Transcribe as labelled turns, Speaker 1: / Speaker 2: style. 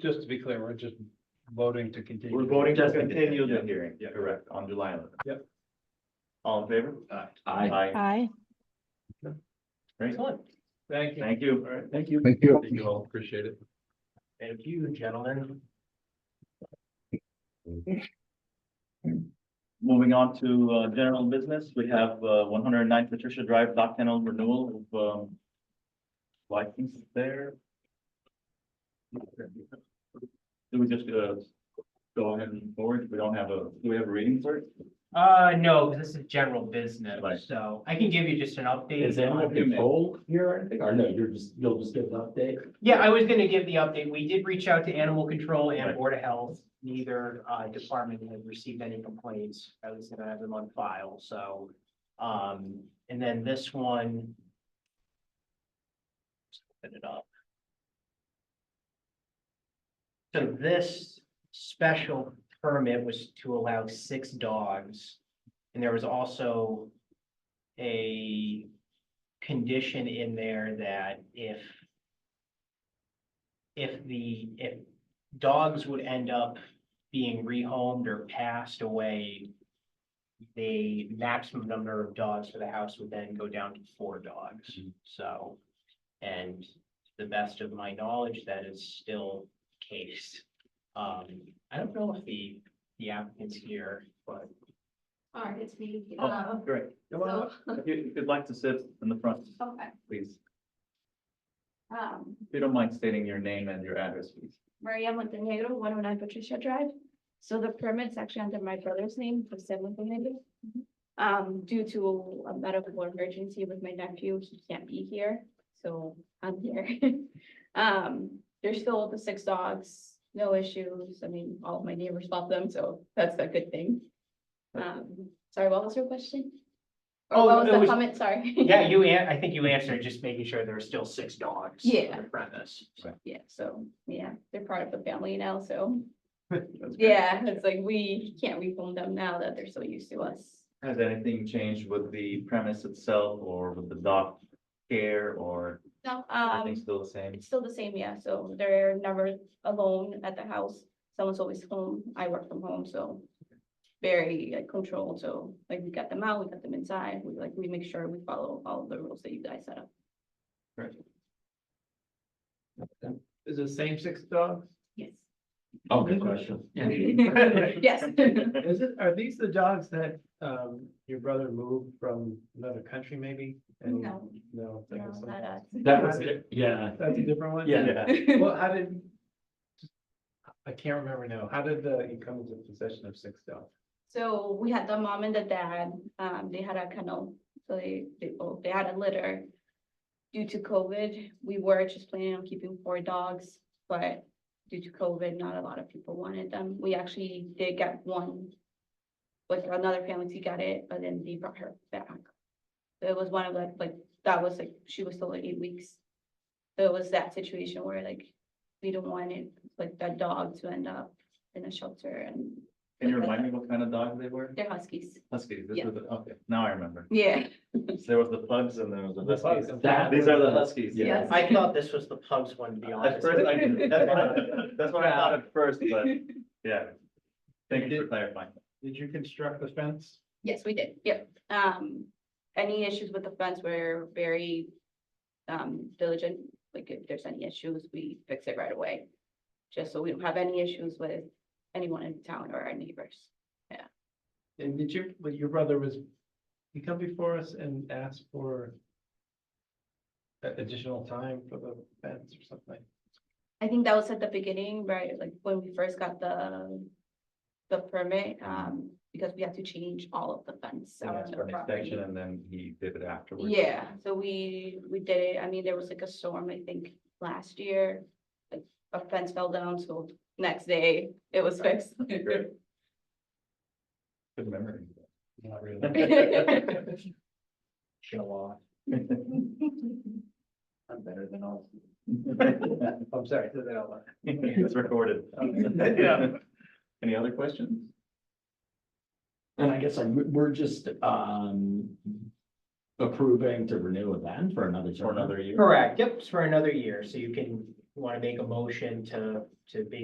Speaker 1: just to be clear, we're just voting to continue.
Speaker 2: We're voting to
Speaker 3: Just
Speaker 2: continue the
Speaker 3: continue,
Speaker 2: hearing,
Speaker 1: yeah.
Speaker 2: correct, on July eleventh.
Speaker 1: Yep.
Speaker 2: All in favor?
Speaker 1: Aye.
Speaker 3: I,
Speaker 4: Aye.
Speaker 2: Great,
Speaker 1: Excellent. Thank you.
Speaker 2: thank you. All right.
Speaker 1: Thank you.
Speaker 5: Thank you.
Speaker 1: you all. Appreciate it.
Speaker 2: Thank you, gentlemen. Moving on to uh, general business, we have uh, one hundred and nine Patricia Drive dock kennel renewal of um, license there. Do we just uh, go ahead and forward? We don't have a, do we have a reading for it?
Speaker 6: Uh, no, 'cause this is general
Speaker 2: Right.
Speaker 6: business, so I can give you just an update.
Speaker 3: is anyone
Speaker 6: on-
Speaker 3: control here or anything? Or no, you're just, you'll just give an update?
Speaker 6: Yeah, I was gonna give the update. We did reach out to animal control
Speaker 2: Right.
Speaker 6: and board of health. Neither uh department had received any complaints. I was gonna have them on file, so. Um, and then this one. just Open it up. So this special permit was to allow six dogs. And there was also a condition in there that if if the, if dogs would end up being rehomed or passed away, the maximum number of dogs for the house would then go down to four dogs,
Speaker 2: Mm-hmm.
Speaker 6: so. And to the best of my knowledge, that is still the case. Um, I don't know if the, the applicant's here, but.
Speaker 7: All right, it's me.
Speaker 2: Oh.
Speaker 7: Uh,
Speaker 2: Great. Come on up. If you- if you'd like to sit in the front,
Speaker 6: Oh.
Speaker 7: Okay,
Speaker 2: please.
Speaker 7: um,
Speaker 2: If you don't mind stating your name and your address, please.
Speaker 7: Maria Montenegro, one oh nine Patricia Drive. So the permit's actually under my brother's name, Jose Montenegro. Um, due to a medical emergency with my nephew, he can't be here, so I'm here. Um, there's still the six dogs, no issues. I mean, all of my neighbors love them, so that's a good thing. Um, sorry, what was your question?
Speaker 6: Oh,
Speaker 7: Or what
Speaker 6: it
Speaker 7: was the
Speaker 6: was-
Speaker 7: comment? Sorry.
Speaker 6: Yeah, you, an- I think you answered, just making sure there are still six dogs. on
Speaker 7: Yeah.
Speaker 6: the Premise.
Speaker 7: Yeah, so, yeah, they're part of the family now, so.
Speaker 2: That's great.
Speaker 7: Yeah, it's like we can't refund them now that they're so used to us.
Speaker 2: Has anything changed with the premise itself or with the dock care or
Speaker 7: No,
Speaker 2: everything
Speaker 7: um,
Speaker 2: still the same?
Speaker 7: it's still the same, yeah, so they're never alone at the house. Someone's always home, I work from home, so very like controlled, so like we got them out, we got them inside, we like, we make sure we follow all the rules that you guys set up.
Speaker 1: Is it same six dogs?
Speaker 7: Yes.
Speaker 3: Oh, good question.
Speaker 7: Yes.
Speaker 1: Is it, are these the dogs that um your brother moved from another country maybe? And-
Speaker 7: No.
Speaker 1: No. that
Speaker 7: No,
Speaker 1: was
Speaker 7: not
Speaker 1: something-
Speaker 7: us.
Speaker 3: That was, it. yeah,
Speaker 1: That's a different one?
Speaker 3: Yeah.
Speaker 2: Yeah,
Speaker 1: Well, how did? I can't remember now. How did the, you come into possession of six dogs?
Speaker 7: So we had the mom and the dad, um, they had a kennel, so they, they both, they had a litter. Due to COVID, we were just planning on keeping four dogs, but due to COVID, not a lot of people wanted them. We actually did get one. With another family, she got it, but then they brought her back. So It was one of like, like, that was like, she was still like eight weeks. So it was that situation where like, we don't want it, like that dog to end up in a shelter and
Speaker 2: can you remind me what kind of dog they were?
Speaker 7: they're huskies.
Speaker 2: Huskies, this
Speaker 7: Yeah.
Speaker 2: was, the- okay, now I remember.
Speaker 7: Yeah.
Speaker 2: There was the pugs and there was the
Speaker 1: The
Speaker 2: huskies.
Speaker 1: pugs.
Speaker 3: That-
Speaker 2: These are the huskies.
Speaker 7: Yes.
Speaker 6: I thought this was the pub's one, to be
Speaker 2: At
Speaker 6: honest.
Speaker 2: first, I didn't- that's what I- that's what I thought at first, but yeah. Thank you for clarifying.
Speaker 1: Did you construct the fence?
Speaker 7: Yes, we did, yep. Um, any issues with the fence, we're very um diligent, like if there's any issues, we fix it right away. Just so we don't have any issues with anyone in town or our neighbors.
Speaker 1: And did you, but your brother was, he come before us and asked for a- additional time for the fence or something?
Speaker 7: I think that was at the beginning, right, like when we first got the the permit, um, because we had to change all of the fence.
Speaker 2: And
Speaker 7: around
Speaker 2: asked
Speaker 7: the
Speaker 2: for an
Speaker 7: property.
Speaker 2: extension and then he did it afterwards.
Speaker 7: Yeah, so we, we did it, I mean, there was like a storm, I think, last year. Like a fence fell down, so next day it was fixed.
Speaker 2: Great. Good memory.
Speaker 1: Not really.
Speaker 6: Show off.
Speaker 1: I'm better than all. I'm sorry, said that out loud.
Speaker 2: It's recorded.
Speaker 1: Yeah.
Speaker 2: Any other questions?
Speaker 3: and I guess I'm, we're just, um. Approving to renew it then for another term.
Speaker 2: For another year?
Speaker 6: Correct, yep, it's for another year, so you can You want to make a motion to, to basically